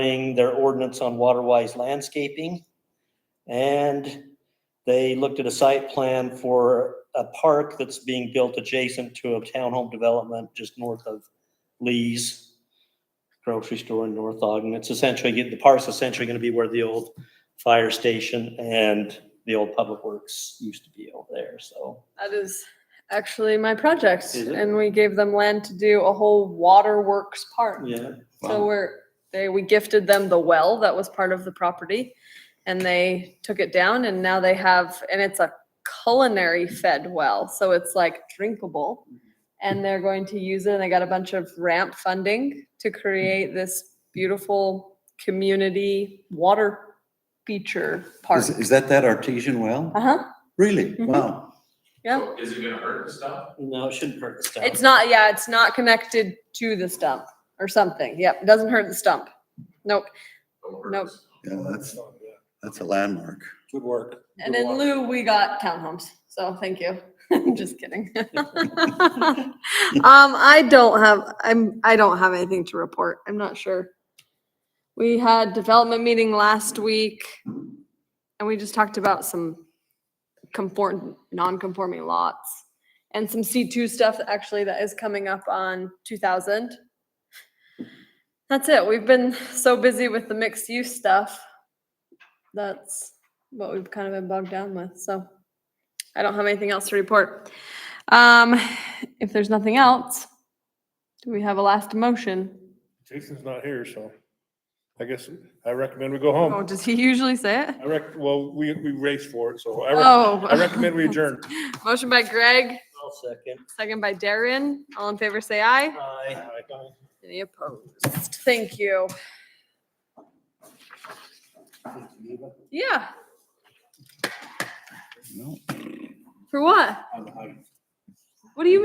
regarding their ordinance on waterwise landscaping. And they looked at a site plan for a park that's being built adjacent to a townhome development just north of Lee's grocery store in North Ogden. It's essentially, the park's essentially going to be where the old fire station and the old public works used to be over there, so. That is actually my project, Is it? and we gave them land to do a whole waterworks park. Yeah, So we're, they, we gifted them the well that was part of the property, and they took it down, and now they have, and it's a culinary fed well, so it's like drinkable. And they're going to use it, and they got a bunch of ramp funding to create this beautiful community water feature park. Is, is that that artesian well? Uh-huh, Really? Mhm. Wow. yeah. So Is it gonna hurt the stuff? no, it shouldn't hurt the stuff. It's not, yeah, it's not connected to the stump or something. Yep, it doesn't hurt the stump. Nope. Don't hurt Nope. the stuff. Yeah, that's, that's a landmark. Good work. And in lieu, we got townhomes. So thank you. Just kidding. Um, I don't have, I'm, I don't have anything to report. I'm not sure. We had development meeting last week and we just talked about some conform, non-conforming lots and some C2 stuff that actually that is coming up on 2000. That's it. We've been so busy with the mixed use stuff. That's what we've kind of been bogged down with. So I don't have anything else to report. Um, if there's nothing else, do we have a last motion? Jason's not here, so I guess I recommend we go Oh, home. does he usually say it? I rec, well, we, we raced for it, so I, rec- Oh. I recommend we adjourn. Motion by Greg, I'll second. second by Darren. All in favor, say aye. Aye. Any opposed? Thank you. Yeah, No. for what? What do you